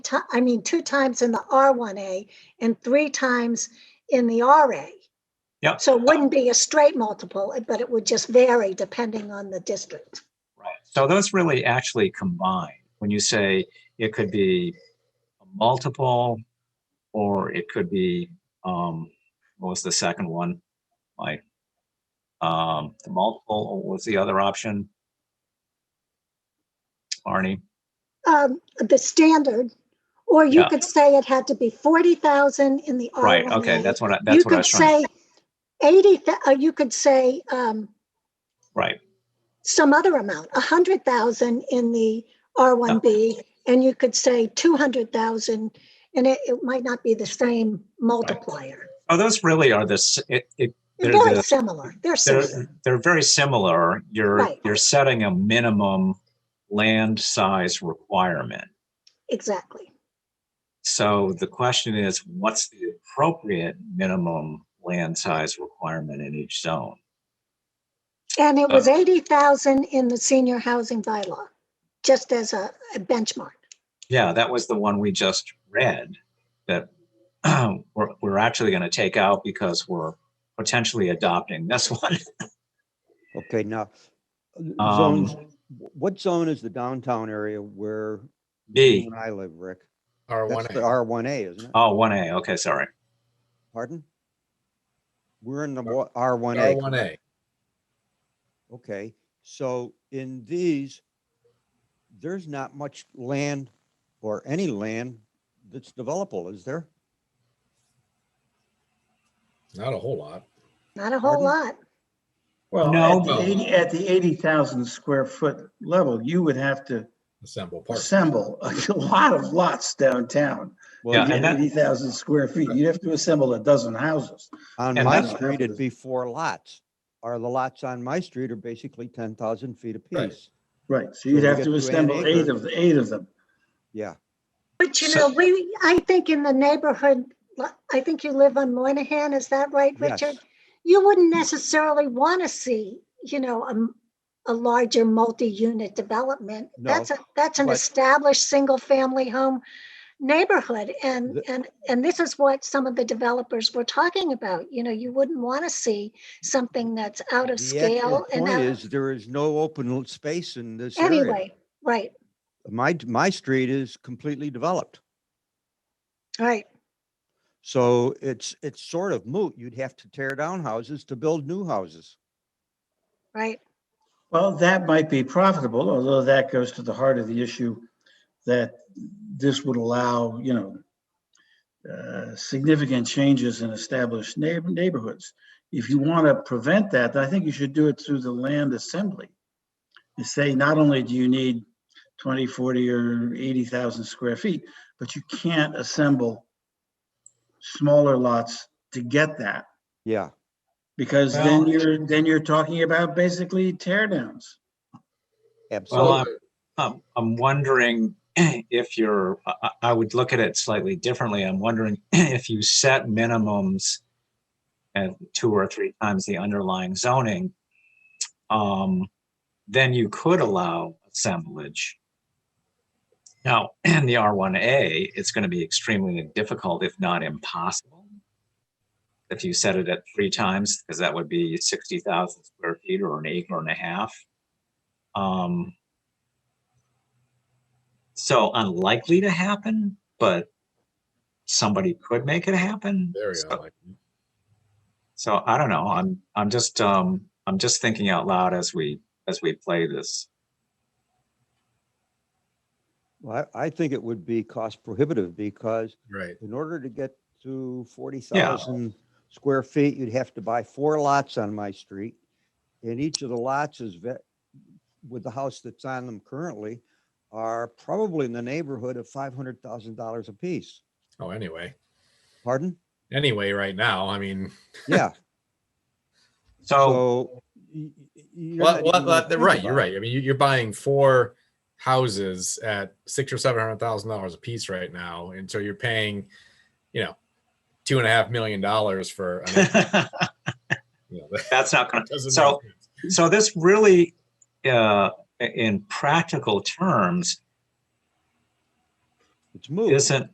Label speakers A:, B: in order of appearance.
A: ti- I mean, two times in the R1A and three times in the RA.
B: Yep.
A: So it wouldn't be a straight multiple, but it would just vary depending on the district.
B: Right. So those really actually combine. When you say it could be a multiple, or it could be, um, what was the second one? Like, um, the multiple, or what was the other option? Arnie,
A: Um, the standard, or you
B: Yeah.
A: could say it had to be forty thousand in the R1A.
B: right, okay, that's what I,
A: Um, You
B: that's what I
A: could
B: was trying,
A: say eighty, thou- uh, you could say, um,
B: right,
A: some other amount, a hundred thousand in the R one B, and you could say two hundred thousand, and it, it might not be the same multiplier.
B: oh, those really are the, s- it, it,
A: They're
B: They're
A: very
B: the-
A: similar, they're
B: they're,
A: similar,
B: they're very similar, you're,
A: Right.
B: you're setting a minimum land size requirement.
A: exactly.
B: So the question is, what's the appropriate minimum land size requirement in each zone?
A: And it was eighty thousand in the senior housing bylaw, just as a a benchmark.
B: Yeah, that was the one we just read that we're, we're actually going to take out because we're potentially adopting this one.
C: Okay, now, uh,
B: Um,
C: zones, wh- what zone is the downtown area where you
B: B,
C: and I live, Rick?
D: R one
C: That's the
D: A.
C: R one A, isn't it?
B: oh, 1A, okay, sorry.
C: Pardon? We're in the R one
D: R
C: A,
D: one A.
C: okay, so in these, there's not much land or any land that's developable, is there?
D: Not a whole lot.
A: Not a whole
C: Pardon?
A: lot.
E: Well,
B: No,
E: at the
D: but-
E: 80, at the 80,000 square foot level, you would have to
D: Assemble park.
E: assemble a lot of lots downtown.
B: Yeah,
C: Well,
E: At
B: and that-
E: 80,000 square feet, you'd have to assemble a dozen houses.
C: on
B: and
C: my
E: that's-
C: street, it'd be four lots, or the lots on my street are basically ten thousand feet
E: Right.
C: apiece.
E: Right, so
C: we
E: you'd have
C: get
E: to
C: to an
E: assemble eight
C: acre.
E: of, the eight of them.
C: Yeah,
A: But you
B: So-
A: know, we, I think in the neighborhood, li- I think you live on Moynihan, is that right,
C: yes,
A: Richard? You wouldn't necessarily want to see, you know, a, m- a larger multi-unit development.
C: No,
A: That's a, that's an
C: but-
A: established, single-family home neighborhood. And,
C: The-
A: and, and this is what some of the developers were talking about. You know, you wouldn't want to see something that's out of
C: The
A: scale
C: actual
A: and
C: Point
A: out,
C: is, there is no open l- space in this area.
A: anyway, right,
C: My, my street is completely developed.
A: right.
C: So it's, it's sort of moot. You'd have to tear down houses to build new houses.
A: Right.
E: Well, that might be profitable, although that goes to the heart of the issue that this would allow, you know, uh, significant changes in established neighbor, neighborhoods. If you want to prevent that, then I think you should do it through the land assembly. And say, not only do you need 20, 40, or 80,000 square feet, but you can't assemble smaller lots to get that.
C: Yeah.
E: Because then you're, then you're talking about basically tear downs.
B: Well,
C: Absolutely.
B: I'm, I'm, I'm wondering if you're, I, I- I would look at it slightly differently. I'm wondering if you set minimums at two or three times the underlying zoning, um, then you could allow assemblage. Now, in the R1A, it's going to be extremely difficult, if not impossible. If you set it at three times, because that would be 60,000 square feet or an acre and a half. Um, so unlikely to happen, but somebody could make it happen.
D: Very
B: So-
D: unlikely.
B: So I don't know. I'm I'm just um I'm just thinking out loud as we as we play this.
C: Well, I, I think it would be cost prohibitive because
D: Right.
C: in order to get to forty thousand square feet, you'd have to buy four lots on my street. And each of the lots is ve- with the house that's on them currently are probably in the neighborhood of five hundred thousand dollars apiece.
D: Oh, anyway.
C: Pardon?
D: Anyway, right now, I mean,
C: Yeah,
B: So
C: so. y- y- you're
D: Oh. well,
C: not
D: well,
C: even gonna
D: well, they're
C: think
D: right. You're
C: about it.
D: right. I mean, you- you're buying four houses at six or seven hundred thousand dollars a piece right now, and so you're paying, you know, two and a half million dollars for. An acre. You know, that
B: that's not going to.
D: doesn't
B: So-
D: make sense.
B: So this really, uh, in practical terms,
F: It's moved.
C: Isn't,